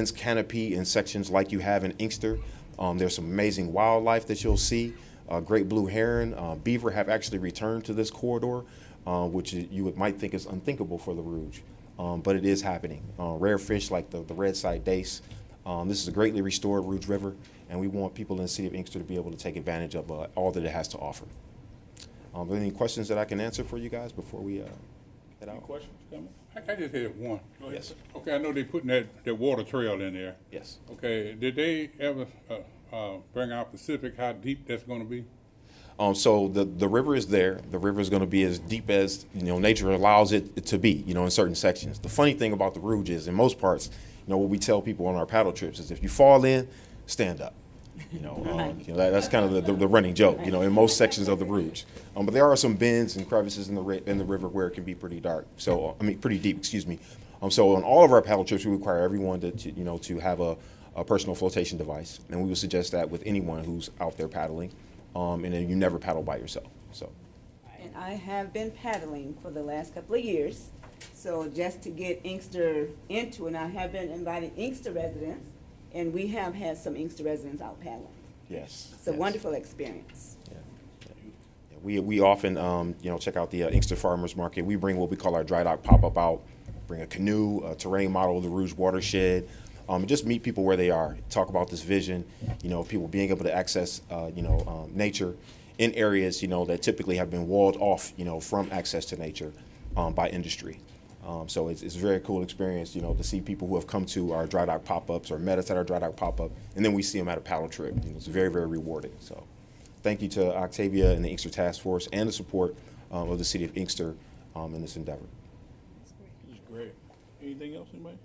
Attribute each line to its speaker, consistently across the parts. Speaker 1: Lions Canopy in sections like you have in Inkster. Um, there's some amazing wildlife that you'll see. Uh, great blue heron, uh, beaver have actually returned to this corridor, uh, which you you would, might think is unthinkable for the Rouge, um, but it is happening. Uh, rare fish like the, the red side dace. Um, this is a greatly restored Rouge River, and we want people in the city of Inkster to be able to take advantage of uh, all that it has to offer. Um, are there any questions that I can answer for you guys before we uh, head out?
Speaker 2: Any questions, comments? I, I just had one. Go ahead.
Speaker 1: Yes.
Speaker 2: Okay, I know they putting that, that water trail in there.
Speaker 1: Yes.
Speaker 2: Okay, did they ever, uh, uh, bring out Pacific, how deep that's gonna be?
Speaker 1: Um, so the, the river is there. The river is going to be as deep as you know nature allows it to be. You know, in certain sections. The funny thing about the Rouge is, in most parts, you know, what we tell people on our paddle trips is, if you fall in, stand up. You know, um, you know that, that's kind of the, the, the running joke. You know, in most sections of the Rouge. Um, but there are some bends and crevices in the ri- in the river where it can be pretty dark. So uh, I mean, pretty deep. Excuse me. Um, so on all of our paddle trips, we require everyone to, to you know to have a, a personal flotation device, and we would suggest that with anyone who's out there paddling um, and then you never paddle by yourself. So,
Speaker 3: And I have been paddling for the last couple of years. So just to get Inkster into, and I have been inviting Inkster residents, and we have had some Inkster residents out paddling.
Speaker 1: yes,
Speaker 3: It's a
Speaker 1: yes.
Speaker 3: wonderful experience.
Speaker 1: Yeah. Yeah, We we often um, you know check out the uh, Inkster Farmers Market. We bring what we call our dry dock pop up out. Bring a canoe, a terrain model of the Rouge watershed. Um, and just meet people where they are. Talk about this vision. You know, people being able to access uh, you know um, nature in areas you know that typically have been walled off you know from access to nature um, by industry. Um, so it's, it's a very cool experience, you know, to see people who have come to our dry dock pop-ups or met us at our dry dock pop-up, and then we see them at a paddle trip. You know, it's very, very rewarding. So thank you to Octavia and the Inkster Task Force and the support um, of the city of Inkster um, in this endeavor.
Speaker 2: It's great. Anything else, anybody?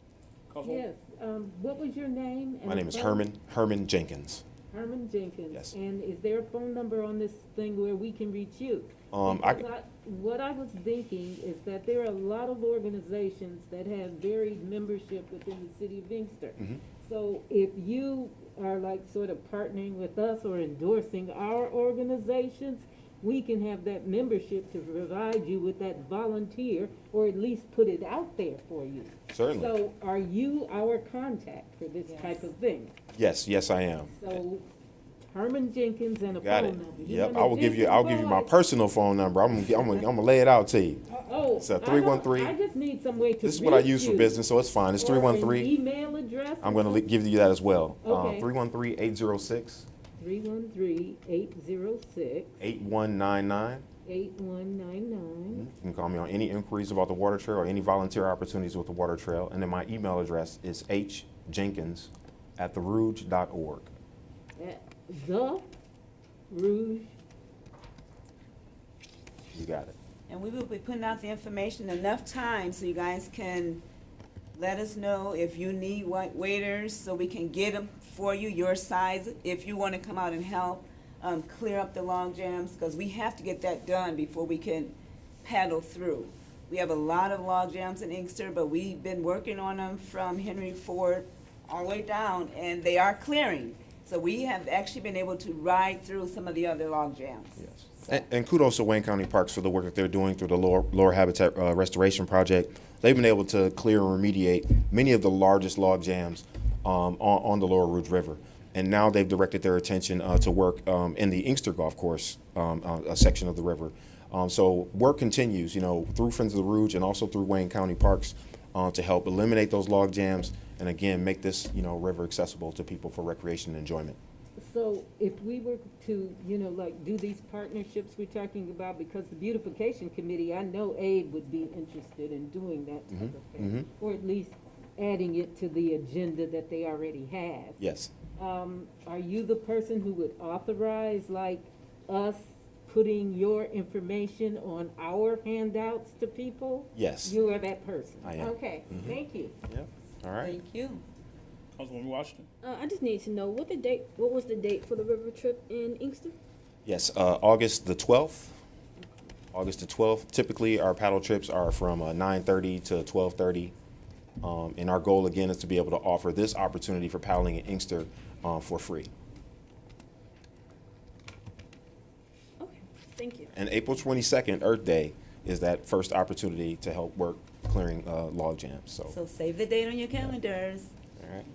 Speaker 4: Yes, um, what was your name? and
Speaker 1: My name is
Speaker 4: phone-
Speaker 1: Herman, Herman Jenkins.
Speaker 4: Herman Jenkins.
Speaker 1: Yes.
Speaker 4: And is there a phone number on this thing where we can reach you?
Speaker 1: Um, I-
Speaker 4: Because What I was thinking is that there are a lot of organizations that have varied membership within the city of Inkster.
Speaker 1: Mm-hmm.
Speaker 4: So if you are like sort of partnering with us or endorsing our organizations, we can have that membership to provide you with that volunteer, or at least put it out there for you.
Speaker 1: Certainly.
Speaker 4: So are you our contact for this type of thing?
Speaker 1: Yes, yes, I am.
Speaker 4: So Herman Jenkins and a
Speaker 1: Got
Speaker 4: phone
Speaker 1: it.
Speaker 4: number. Oh, You
Speaker 1: Yep,
Speaker 4: want
Speaker 1: I will
Speaker 4: a
Speaker 1: give you.
Speaker 4: Jenkins
Speaker 1: I'll give you my
Speaker 4: boy?
Speaker 1: personal phone number. I'm gonna. I'm gonna, I'm gonna lay it out to you.
Speaker 4: Oh.
Speaker 1: It's a
Speaker 4: I don't-
Speaker 1: 313.
Speaker 4: I just need some way to
Speaker 1: This is what I
Speaker 4: reach
Speaker 1: use for
Speaker 4: you.
Speaker 1: business, so it's fine. It's
Speaker 4: Or
Speaker 1: three
Speaker 4: an
Speaker 1: one three.
Speaker 4: Email address.
Speaker 1: I'm gonna le- give you that as well. Um,
Speaker 4: Okay.
Speaker 1: 313 806
Speaker 4: Three one three eight zero six
Speaker 1: 8199.
Speaker 4: eight one nine nine.
Speaker 1: You can call me on any inquiries about the water trail or any volunteer opportunities with the water trail. And then my email address is hjenkins at therouge.org. Mm-hmm.
Speaker 4: The Rouge.
Speaker 1: You got it.
Speaker 3: And we will be putting out the information enough time so you guys can let us know if you need wa- waiters, so we can get them for you, your size, if you want to come out and help, um, clear up the log jams, because we have to get that done before we can paddle through. We have a lot of log jams in Inkster, but we've been working on them from Henry Ford all the way down, and they are clearing. So we have actually been able to ride through some of the other log jams.
Speaker 1: Yes. And, and kudos to Wayne County Parks for the work that they're doing through the Lower, Lower Habitat uh, Restoration Project. They've been able to clear and remediate many of the largest log jams um, on, on the Lower Rouge River. And now they've directed their attention uh, to work um, in the Inkster Golf Course um, uh, a section of the river. Um, so work continues, you know, through Friends of the Rouge and also through Wayne County Parks uh, to help eliminate those log jams and again make this, you know, river accessible to people for recreation and enjoyment.
Speaker 4: So if we were to, you know, like do these partnerships we're talking about, because the beautification committee, I know Abe would be interested in doing that
Speaker 1: Mm-hmm.
Speaker 4: type of thing. Or at least adding it to the agenda that they already have.
Speaker 1: Yes.
Speaker 4: Um, are you the person who would authorize like us putting your information on our handouts to people?
Speaker 1: Yes.
Speaker 4: You are that person?
Speaker 1: I am. Mm-hmm.
Speaker 4: Okay, thank you.
Speaker 1: Yep. All right.
Speaker 3: Thank you.
Speaker 2: Councilwoman Washington?
Speaker 5: Uh, I just need to know what the date. What was the date for the river trip in Inkster?
Speaker 1: Yes, uh, August the 12th. August the 12th. Typically, our paddle trips are from uh, 9:30 to 12:30. Um, And our goal, again, is to be able to offer this opportunity for paddling in Inkster uh, for free.
Speaker 5: Okay, thank you.
Speaker 1: And April 22nd, Earth Day, is that first opportunity to help work clearing uh, log jams, so.
Speaker 3: So save the date on your calendars.
Speaker 1: all right.